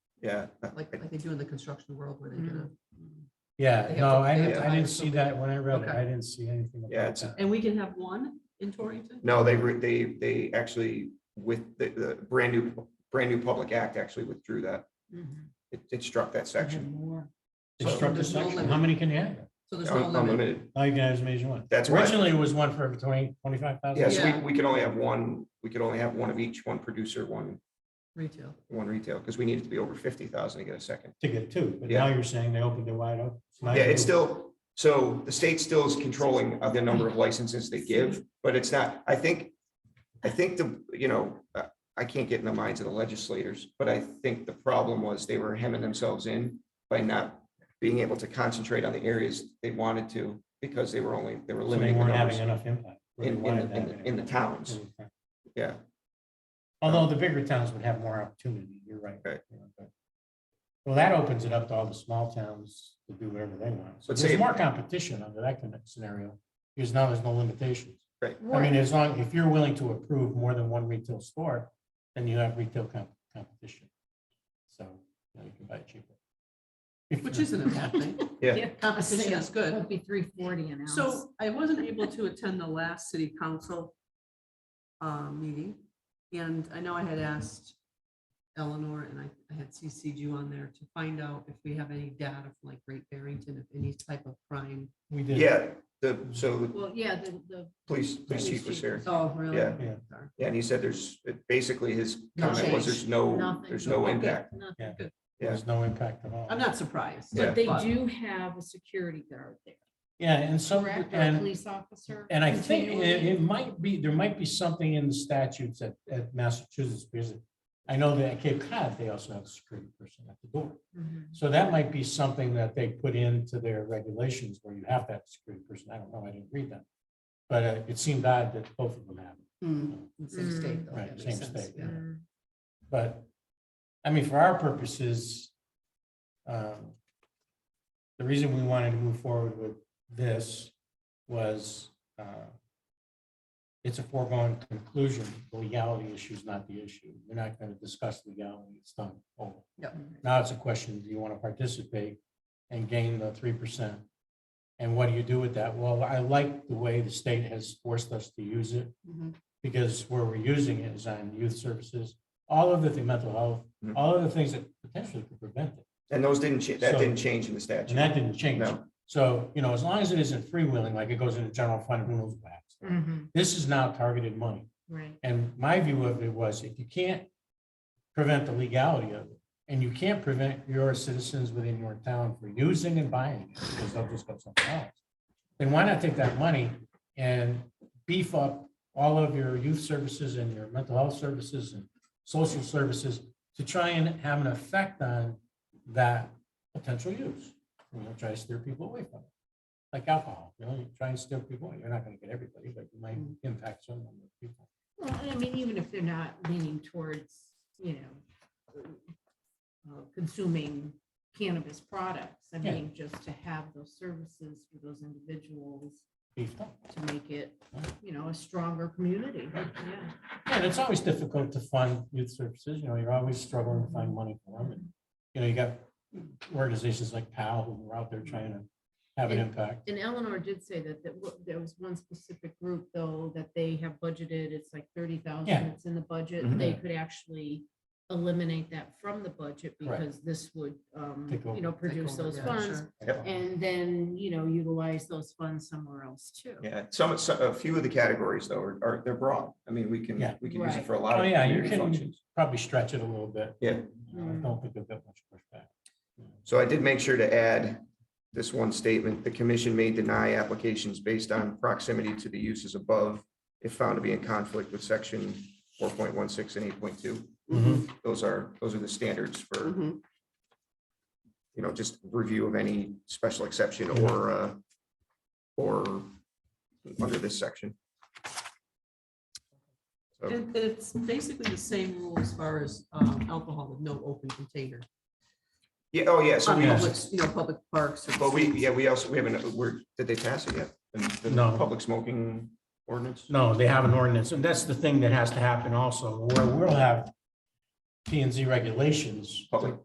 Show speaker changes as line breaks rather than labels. Yeah.
like, like they do in the construction world where they get a.
Yeah,
They have
no,
to- they
I
have
didn't,
to
I didn't
hire
see that when I read it.
Okay.
I didn't see anything
Yeah,
about
it's-
that.
And we can have one in Torrington?
No, they, re- they, they actually with the, the brand new, brand new public act actually withdrew that. It, it struck that
Mm-hmm.
section.
They
So
struck the
there's no
section.
limit.
How many can you have?
So there's no
Un-
limit.
Unlimited.
Now you can have as many as you want.
That's why-
Originally it was one for every twenty, twenty-five thousand.
Yes,
Yeah.
we, we can only have one, we could only have one of each, one producer, one,
Retail.
one retail, because we need it to be over fifty thousand to get a second.
To get two, but now you're saying they opened it wide up. Now
Yeah,
you-
it's still, so the state still is controlling of the number of licenses they give, but it's not, I think, I think the, you know, uh, I can't get in the minds of the legislators, but I think the problem was they were hemming themselves in by not being able to concentrate on the areas they wanted to, because they were only, they were
So they
limiting the
weren't having
numbers
enough impact. where they
in, in,
wanted
the-
to
in
have an
the- in the
impact.
towns, yeah.
Mm-hmm.
Um,
Although the bigger towns would have more opportunity, you're right.
Right.
you know, but- Well, that opens it up to all the small towns to do whatever they want. So
But
there's
say-
more competition under that kind of scenario, because now there's no limitations. I mean,
Right,
as long, if you're willing to approve more than one retail store, then you have retail com- competition. So you know, you can buy cheaper. If
Which
you're-
isn't a bad thing.
Yeah.
Yeah.
Competition is
it
good.
would be three forty an ounce.
So I wasn't able to attend the last city council uh, meeting. And I know I had asked Eleanor and I I had CC'd you on there to find out if we have any data from like Great Barrington, if any type of crime.
We did.
Yeah, the, so the
Well, yeah, the, the.
police, police chief was here.
Oh, really?
Yeah.
Yeah.
Sorry.
Yeah, and he said there's, it- basically his
No
comment was
change,
there's no,
nothing.
there's no
Okay.
impact.
nothing.
Yeah.
Yeah.
There's no impact at all.
I'm not surprised.
Yeah.
But they do have a security guard there,
Yeah, and some,
correct, or a
and,
police officer?
and I think it,
continually?
it might be, there might be something in the statutes at, at Massachusetts, because I know that at Cape Cod, they also have a security person at the door.
Mhm.
So that might be something that they put into their regulations where you have that security person. I don't know, I didn't read that. But uh, it seemed odd that both of them have, it,
Hmm, in the Same
Mm.
state though.
Right,
that
same
makes sense,
state,
yeah.
Mm.
but, I mean, for our purposes, um, the reason we wanted to move forward with this was uh, it's a foregone conclusion, The legality issue is not the issue. We're not going to discuss legality, it's done. over.
Yep.
Now it's a question, do you want to participate and gain the three percent? And what do you do with that? Well, I like the way the state has forced us to use it
Mhm.
because where we're using it is on youth services, all of the thing, mental health,
Mhm.
all of the things that potentially could prevent it.
And those didn't, cha- that
So-
didn't change in the
And
statute.
that didn't change.
No.
So, you know, as long as it isn't freewheeling, like it goes into general fund, who knows what happens.
Mhm,
This is now targeted money.
Right.
And my view of it was if you can't prevent the legality of it, and you can't prevent your citizens within your town from using and buying it, because they'll just go somewhere else, then why not take that money and beef up all of your youth services and your mental health services and social services to try and have an effect on that potential use? You know, try to steer people away from it, like alcohol, you know, you try and steer people, away. you're not gonna get everybody, but you might impact some number of people.
Well, I mean, even if they're not leaning towards, you know, uh, consuming cannabis products, I
Yeah.
mean, just to have those services for those individuals
beefed up.
to make it, you know, a stronger community, yeah.
Yeah, and it's always difficult to fund youth services, you know, you're always struggling to find money for them. and You know, you got organizations like PAL who are out there trying to have an
And-
impact.
And Eleanor did say that, that wa- there was one specific group though, that they have budgeted, it's like thirty thousand,
Yeah.
it's in the budget.
Mhm.
They could actually eliminate that from the budget
Right.
because this would, um,
Take over.
you know,
Take
produce
over,
those
yeah,
funds.
sure.
Yep.
And then, you know, utilize those funds somewhere else too.
Yeah, some, some, a few of the categories though are, are, they're broad. I mean, we
Yeah.
can, we can use it
Right.
for a lot
Oh,
of
yeah, you
community
can-
functions.
Probably stretch it a little bit.
Yeah.
You know, I don't think they've got much pushback.
So I did make sure to add this one statement, the commission may deny applications based on proximity to the uses above if found to be in conflict with section four point one six and eight point two.
Mm-hmm.
Mhm.
Those are, those are the standards for,
Mhm.
you know, just review of any special exception or, uh, or under this section. So-
And and it's basically the same rule as far as um, alcohol with no open container.
Yeah, oh, yeah, so
On
we,
public, you know, public parks. or
but we, yeah, we also, we haven't, we're, did they pass it yet? The- the
No.
Public smoking ordinance?
No, they have an ordinance, and that's the thing that has to happen also, where we'll have P and Z regulations.
Public